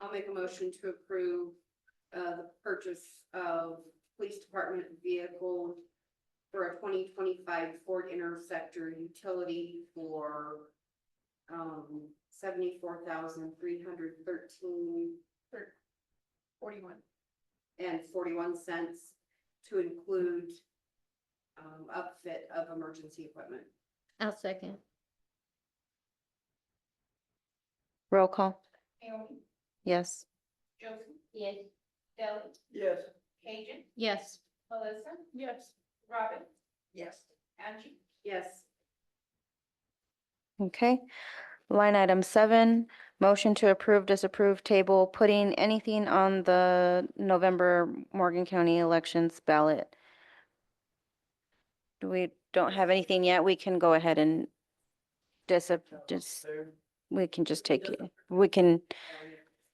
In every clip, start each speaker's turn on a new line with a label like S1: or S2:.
S1: I'll make a motion to approve uh the purchase of police department vehicle for a twenty twenty-five Ford Interceptor utility for um seventy-four thousand three hundred thirteen
S2: Forty-one.
S1: and forty-one cents to include um upfit of emergency equipment.
S3: I'll second.
S4: Roll call,
S2: Naomi,
S4: yes.
S2: Josie,
S3: Yes.
S2: Deli,
S5: yes,
S2: Cajun,
S3: Yes.
S2: Melissa. Yes. Robin,
S5: yes,
S2: Angie,
S1: Yes,
S4: Okay. Line item seven, motion to approve, disapprove table, putting anything on the November Morgan County elections ballot. We don't have anything yet. We can go ahead and dis, dis, we can just take, it. we can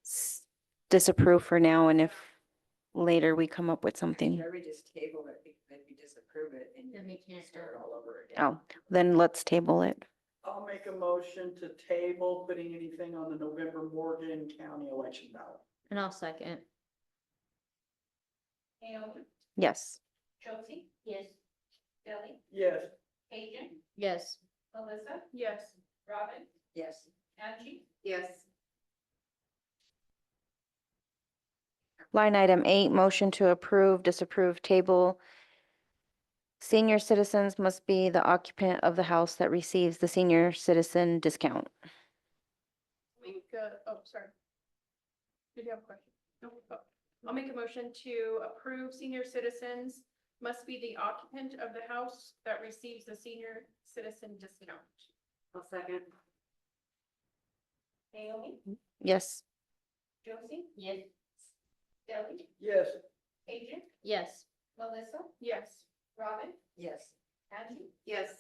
S4: s- disapprove for now and if later we come up with something,
S6: Should we just table it, be- then we disapprove it and
S3: Then we
S6: you
S3: can't
S6: start
S3: do it.
S6: all over again?
S4: oh, then let's table it.
S5: I'll make a motion to table putting anything on the November Morgan County election ballot.
S3: And I'll second.
S2: Naomi,
S4: Yes.
S2: Josie. Yes. Deli,
S5: Yes,
S2: Cajun,
S3: Yes.
S2: Melissa. Yes. Robin,
S6: Yes,
S2: Angie,
S1: yes,
S4: Line item eight, motion to approve, disapprove table. Senior citizens must be the occupant of the house that receives the senior citizen discount.
S7: Make a, oh, sorry. Did you have a question? No, oh. I'll make a motion to approve senior citizens must be the occupant of the house that receives the senior citizen discount.
S1: I'll second.
S2: Naomi,
S4: Yes.
S2: Josie,
S3: Yes.
S2: Deli,
S5: yes,
S2: Cajun,
S3: Yes.
S2: Melissa,
S7: Yes,
S2: Robin,
S6: yes.
S2: Angie,
S1: Yes,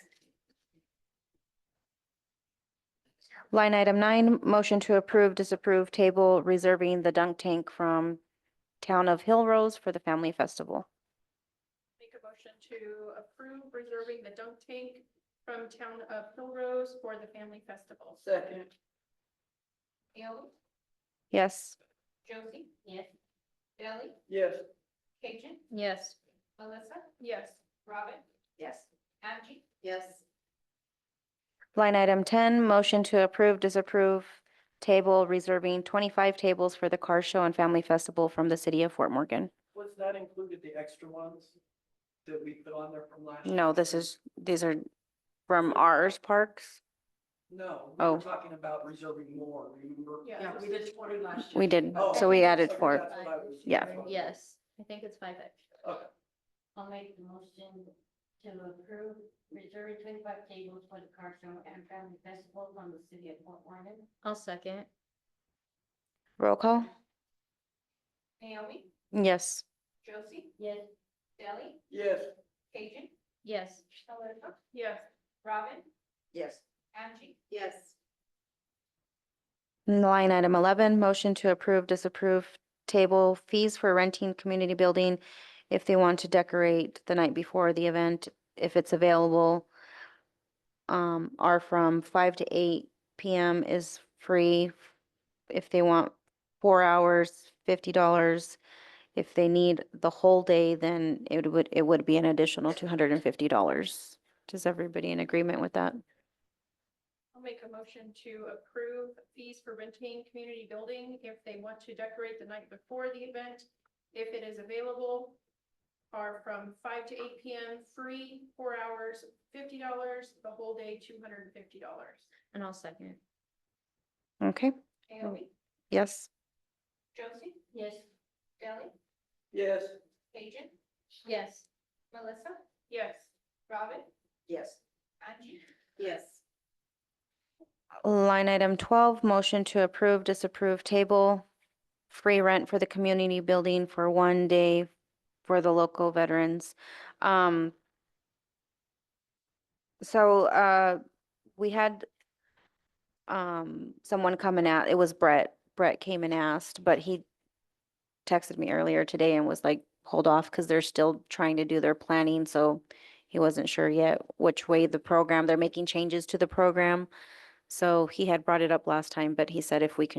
S4: Line item nine, motion to approve, disapprove table reserving the dunk tank from town of Hill Rose for the family festival.
S7: make a motion to approve reserving the dunk tank from town of Hill Rose for the family festival.
S5: second,
S2: Naomi,
S4: Yes.
S2: Josie. Yes. Deli,
S5: yes,
S2: Cajun,
S3: Yes.
S2: Melissa,
S7: Yes,
S2: Robin,
S6: Yes,
S2: Angie,
S1: yes,
S4: Line item ten, motion to approve, disapprove table reserving twenty-five tables for the car show and family festival from the city of Fort Morgan.
S5: was that included, the extra ones that we put on there from last? year?
S4: No, this is, these are from ours parks.
S5: No, we
S4: Oh.
S5: were talking about reserving more, remember?
S7: Yeah.
S6: yeah, we did twenty last year.
S4: We did,
S5: Oh,
S4: so we
S5: okay,
S4: added
S5: sorry,
S4: four.
S5: that's what I was-
S4: Yeah.
S5: that's what I-
S3: Yes. I think it's five extra.
S5: Okay.
S8: I'll make the motion to approve reserve twenty-five tables for the car show and family festival from the city of Fort Warren.
S3: I'll second.
S4: Roll call?
S2: Naomi,
S4: Yes.
S2: Josie,
S8: Yes,
S2: Deli,
S5: Yes,
S2: Cajun,
S3: Yes.
S2: Melissa,
S7: yes,
S2: Robin,
S6: Yes,
S2: Angie,
S1: yes,
S4: Line item eleven, motion to approve, disapprove table fees for renting community building if they want to decorate the night before the event, if it's available. Um, are from five to eight PM is free. If they want four hours, fifty dollars. If they need the whole day, then it would, it would be an additional two hundred and fifty dollars. Does everybody in agreement with that?
S7: I'll make a motion to approve fees for renting community building if they want to decorate the night before the event, if it is available, are from five to eight PM, free, four hours, fifty dollars, the whole day, two hundred and fifty dollars.
S3: And I'll second.
S4: Okay,
S2: Naomi,
S4: yes,
S2: Josie,
S8: yes,
S2: Deli,
S5: yes,
S2: Cajun,
S3: Yes.
S2: Melissa,
S7: Yes,
S2: Robin,
S6: yes,
S2: Angie,
S1: yes,
S4: Line item twelve, motion to approve, disapprove table, free rent for the community building for one day for the local veterans. Um, so, uh, we had um, someone coming out, it was Brett, Brett came and asked, but he texted me earlier today and was like, hold off, because they're still trying to do their planning, so he wasn't sure yet which way the program, they're making changes to the program. So he had brought it up last time, but he said if we can